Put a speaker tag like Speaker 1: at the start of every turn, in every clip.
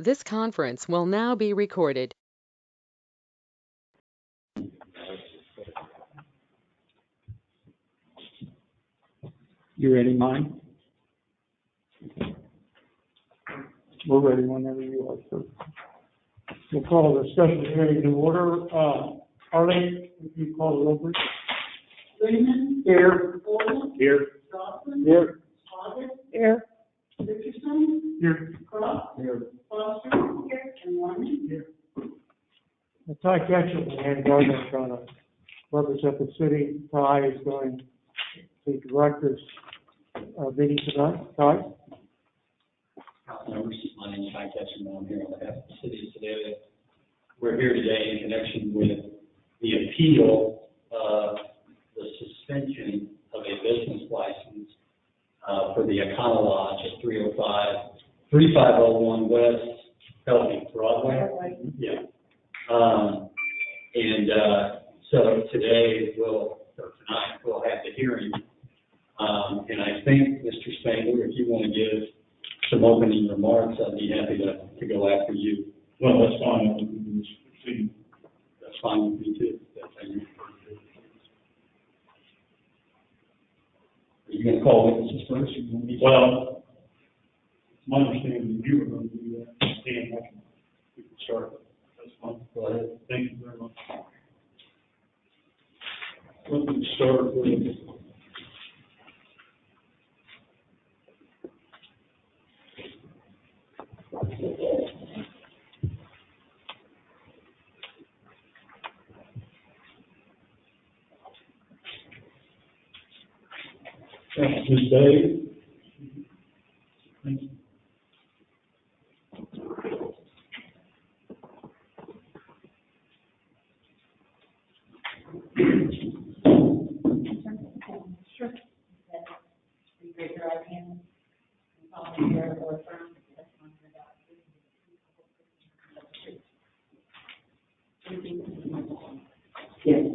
Speaker 1: This conference will now be recorded.
Speaker 2: You ready, Mike? We're ready whenever you are, sir. We'll call the special hearing to order. Uh, Arlene, if you call it over.
Speaker 3: Raymond,
Speaker 2: Here.
Speaker 3: Gordon,
Speaker 2: Here.
Speaker 3: Johnson,
Speaker 2: Here.
Speaker 3: Hoggett,
Speaker 2: Here.
Speaker 3: Richardson,
Speaker 2: Here.
Speaker 3: Crump,
Speaker 2: Here.
Speaker 3: Foster, and Lyman.
Speaker 2: Ty Ketchum, the head gardener, trying to represent the city. Ty is going to direct this, uh, meeting tonight. Ty?
Speaker 4: House members, my name is Mike Ketchum, and I'm here on behalf of the city of Sedalia. We're here today in connection with the appeal of the suspension of a business license uh, for the Econo Lodge at 305, 3501 West Bellevue Broadway. Yeah. Um, And uh, so today, we'll, or tonight, we'll have the hearing. Um, And I think, Mr. Spangler, if you want to give some opening remarks, I'd be happy to, to go after you.
Speaker 5: Well, that's fine, I think we can just proceed.
Speaker 4: That's fine with me too. That's how you prefer to do it. Are you gonna call witnesses first? or you want me to-
Speaker 5: Well, it's my understanding that you were going to do that, Dan, I can, we can start. That's fine.
Speaker 4: Go ahead.
Speaker 5: Thank you very much. Let me start with. Thank you, Dave. Thank you.
Speaker 3: Sure. You raise your right hand. and solemnly swear or affirm the testimony you're about to give is the truth, the whole truth, and nothing but the truth. Repeat this to myself.
Speaker 5: Yes.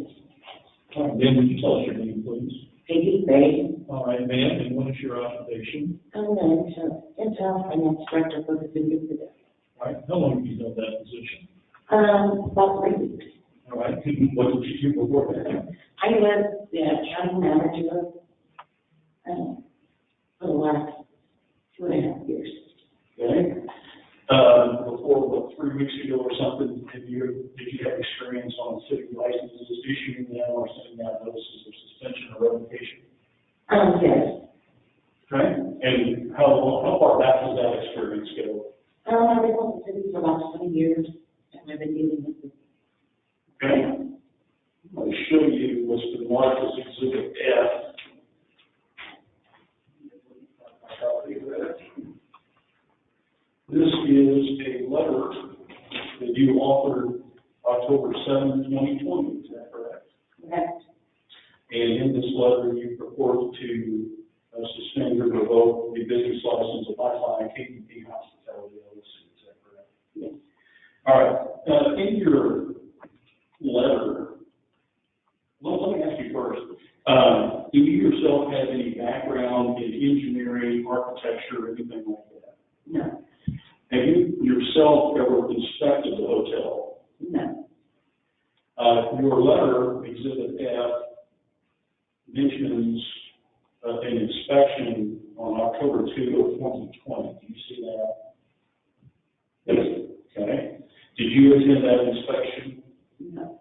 Speaker 5: All right, Ben, would you tell us your name, please?
Speaker 3: Peggy Bay,
Speaker 5: All right, ma'am, and what is your occupation?
Speaker 3: I'm the insurance, intel and instructor for the city of Sedalia.
Speaker 5: All right, how long have you held that position?
Speaker 3: Um, about three weeks.
Speaker 5: All right, could you- what did you do before that?
Speaker 3: I was the county manager, um, for the last two and a half years.
Speaker 5: Okay. Uh, before, what, three weeks ago or something, have you, did you have experience on city licenses issuing them or sending out notices of suspension or revocation?
Speaker 3: Um, yes,
Speaker 5: Okay. And how long, how far back does that experience go?
Speaker 3: um, I've been with the city for the last twenty years, and I've been dealing with this.
Speaker 5: Okay. I'm going to show you what's been marked as exhibit F. This is a letter that you authored October 7, 2020, is that correct?
Speaker 3: Correct.
Speaker 5: And in this letter, you purport to uh, suspend or revoke the business license of Lifeline KDP Hospitality LLC, is that correct?
Speaker 3: Yes.
Speaker 5: All right, uh, in your letter, let, let me ask you first, uh, do you yourself have any background in engineering, architecture, or anything like that?
Speaker 3: No,
Speaker 5: Have you yourself ever inspected the hotel?
Speaker 3: no,
Speaker 5: Uh, your letter, exhibit F, mentions uh, an inspection on October two of twenty twenty. Do you see that? Yes. Okay. Did you attend that inspection?
Speaker 3: no.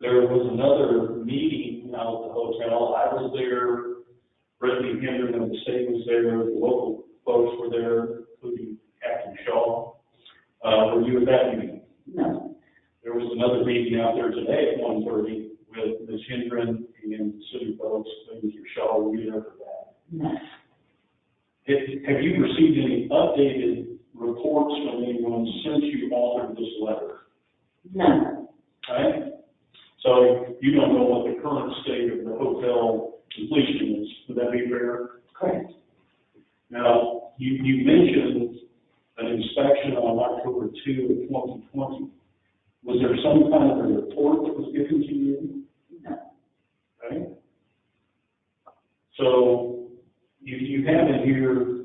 Speaker 5: There was another meeting out at the hotel. I was there, Brittany Henderson of the state was there, the local folks were there, including Captain Shaw. Uh, were you at that meeting?
Speaker 3: No,
Speaker 5: There was another meeting out there today at one thirty with Ms. Hendren and city folks, and Mr. Shaw, we there for that.
Speaker 3: no,
Speaker 5: Have- Have you received any updated reports from anyone since you authored this letter?
Speaker 3: no,
Speaker 5: Okay? So you don't know what the current state of the hotel completion is, would that be fair?
Speaker 3: correct.
Speaker 5: Now, you, you mentioned an inspection on October two of twenty twenty. Was there some kind of a report that was given to you?
Speaker 3: No,
Speaker 5: Okay? So you, you have in here